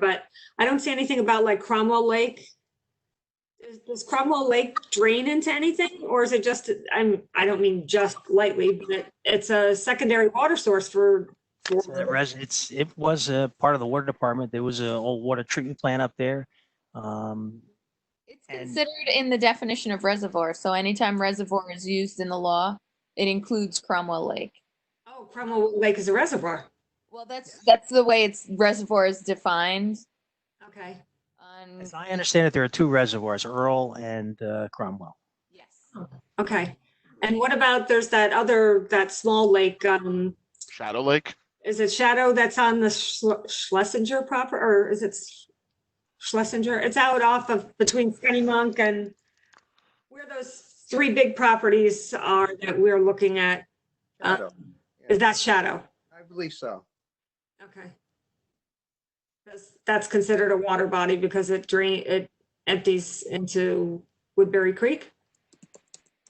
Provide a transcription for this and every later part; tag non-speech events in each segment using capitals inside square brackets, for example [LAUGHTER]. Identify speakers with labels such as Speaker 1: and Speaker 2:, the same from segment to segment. Speaker 1: but I don't see anything about like Cromwell Lake. Does- Does Cromwell Lake drain into anything or is it just, I'm, I don't mean just lightly, but it's a secondary water source for. for-
Speaker 2: So The res, it's, it was a part of the water department. There was a old water treatment plant up there. Um,
Speaker 3: It's
Speaker 2: And-
Speaker 3: considered in the definition of reservoir, so anytime reservoir is used in the law, it includes Cromwell Lake.
Speaker 1: Oh, Cromwell Lake is a reservoir.
Speaker 3: Well, that's, that's the way it's reservoir is defined
Speaker 1: Okay.
Speaker 3: on,
Speaker 2: as I understand it, there are two reservoirs, Earl and uh, Cromwell.
Speaker 3: yes.
Speaker 1: Okay. And what about, there's that other, that small lake, um,
Speaker 4: Shadow Lake?
Speaker 1: is it Shadow that's on the Schle- Schlesinger proper, or is it Sch- Schlesinger? It's out off of between Skinny Monk and where those three big properties are that we're looking at. Uh,
Speaker 5: Shadow.
Speaker 1: Is that Shadow?
Speaker 5: I believe so.
Speaker 1: Okay. That's, that's considered a water body because it drain, it empties into Woodbury Creek?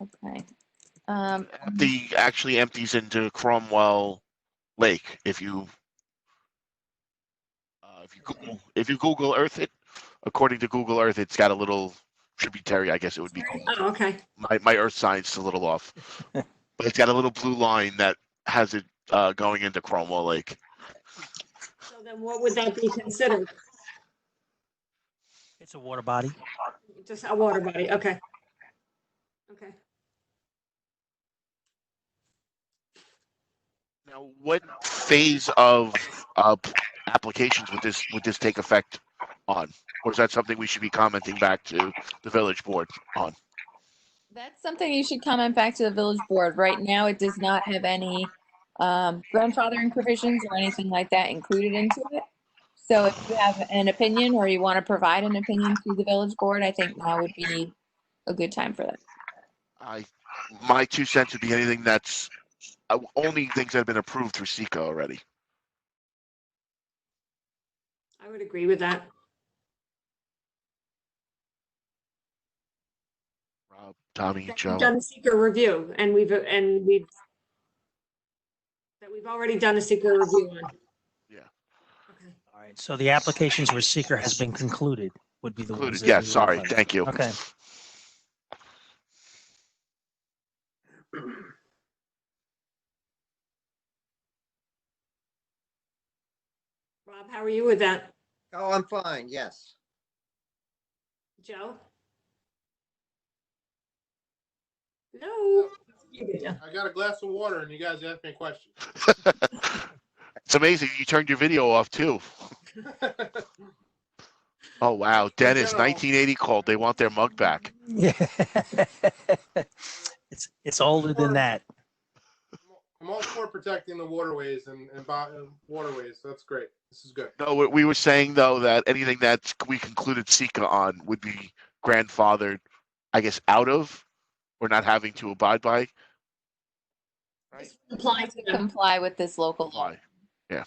Speaker 3: Okay. Um,
Speaker 4: The actually empties into Cromwell Lake if you uh, if you Google if you Google Earth it, according to Google Earth, it's got a little tributary, I guess it would be called.
Speaker 1: Oh, okay.
Speaker 4: My my earth science is a little off. But it's got a little blue line that has it uh, going into Cromwell Lake.
Speaker 1: So then what would that be considered?
Speaker 2: It's a water body.
Speaker 1: Just a water body, okay. Okay.
Speaker 4: Now, what phase of uh, p- applications would this would this take effect on? Or is that something we should be commenting back to the village board on?
Speaker 3: that's something you should comment back to the village board. Right now, it does not have any, um, grandfathering provisions or anything like that included into it. So if you have an opinion or you want to provide an opinion to the village board, I think now would be a good time for that.
Speaker 4: I, my two cents would be anything that's, uh, only things that have been approved through Seco already.
Speaker 1: I would agree with that.
Speaker 4: Rob, Tommy,
Speaker 1: that we've
Speaker 4: Joe.
Speaker 1: Done the secret review and we've, and we've, that we've already done a secret review on.
Speaker 4: Yeah.
Speaker 1: Okay.
Speaker 2: All right. So the applications where seeker has been concluded would be the ones.
Speaker 4: Included,
Speaker 2: that
Speaker 4: yeah,
Speaker 2: we would
Speaker 4: sorry, [LAUGHS]
Speaker 2: like.
Speaker 4: thank you.
Speaker 2: Okay. [LAUGHS]
Speaker 1: Rob, how are you with that?
Speaker 5: Oh, I'm fine, yes.
Speaker 1: Joe? No.
Speaker 6: I got a glass of water and you guys asked me a question.
Speaker 4: It's amazing, you turned your video off too. Oh, wow, Dennis,
Speaker 6: General.
Speaker 4: nineteen eighty called, they want their mug back.
Speaker 2: Yeah. It's, it's older than that.
Speaker 6: I'm all for protecting the waterways and, and bo- and waterways. So that's great. This is good.
Speaker 4: No, we- we were saying though that anything that we concluded Seco on would be grandfathered, I guess, out of, or not having to abide by.
Speaker 1: Applying to them.
Speaker 3: Comply with this local law.
Speaker 4: Why?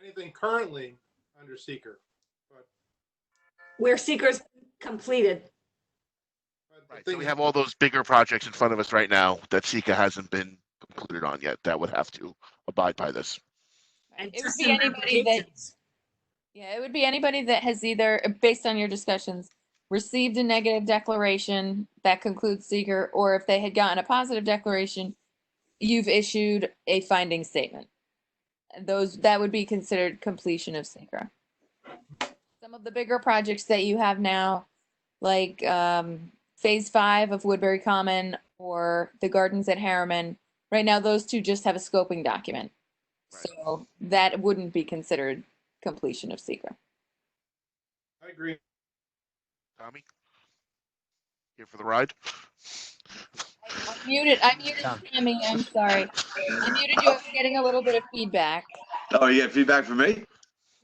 Speaker 6: Anything currently under seeker,
Speaker 1: Where seekers completed.
Speaker 6: but the
Speaker 4: Right, so
Speaker 6: thing
Speaker 4: we
Speaker 6: is-
Speaker 4: have all those bigger projects in front of us right now that Sika hasn't been concluded on yet that would have to abide by this.
Speaker 1: and
Speaker 3: It would
Speaker 1: just
Speaker 3: be
Speaker 1: some
Speaker 3: anybody that,
Speaker 1: applications.
Speaker 3: yeah, it would be anybody that has either, based on your discussions, received a negative declaration that concludes seeker, or if they had gotten a positive declaration, you've issued a finding statement. Those, that would be considered completion of seeker. Some of the bigger projects that you have now, like, um, phase five of Woodbury Common or the gardens at Harriman, right now, those two just have a scoping document.
Speaker 4: Right.
Speaker 3: So that wouldn't be considered completion of seeker.
Speaker 6: I agree.
Speaker 4: Tommy? Here for the ride?
Speaker 3: I Muted, I muted
Speaker 2: Tom.
Speaker 3: Tammy, I'm sorry. I muted you, I was getting a little bit of feedback.
Speaker 7: Oh, you get feedback from me?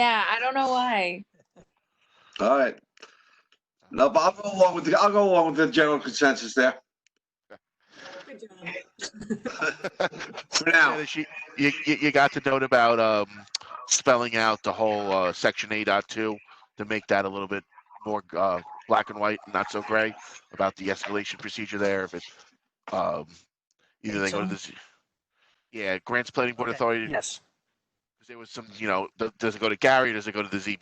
Speaker 3: Yeah, I don't know why.
Speaker 7: All right. No, but I'll go along with the, I'll go along with the general consensus there
Speaker 1: Good job.
Speaker 7: for now.
Speaker 4: Dennis, you, you, you you got the note about um, spelling out the whole uh, section 8.2 to make that a little bit more uh, black and white, not so gray, about the escalation procedure there. If it, um, either they go to
Speaker 2: Eight-zone?
Speaker 4: this, yeah, grants planning board
Speaker 2: Okay,
Speaker 4: authority.
Speaker 2: Yes.
Speaker 4: There was some, you know, th- does it go to Gary? Does it go to the ZB?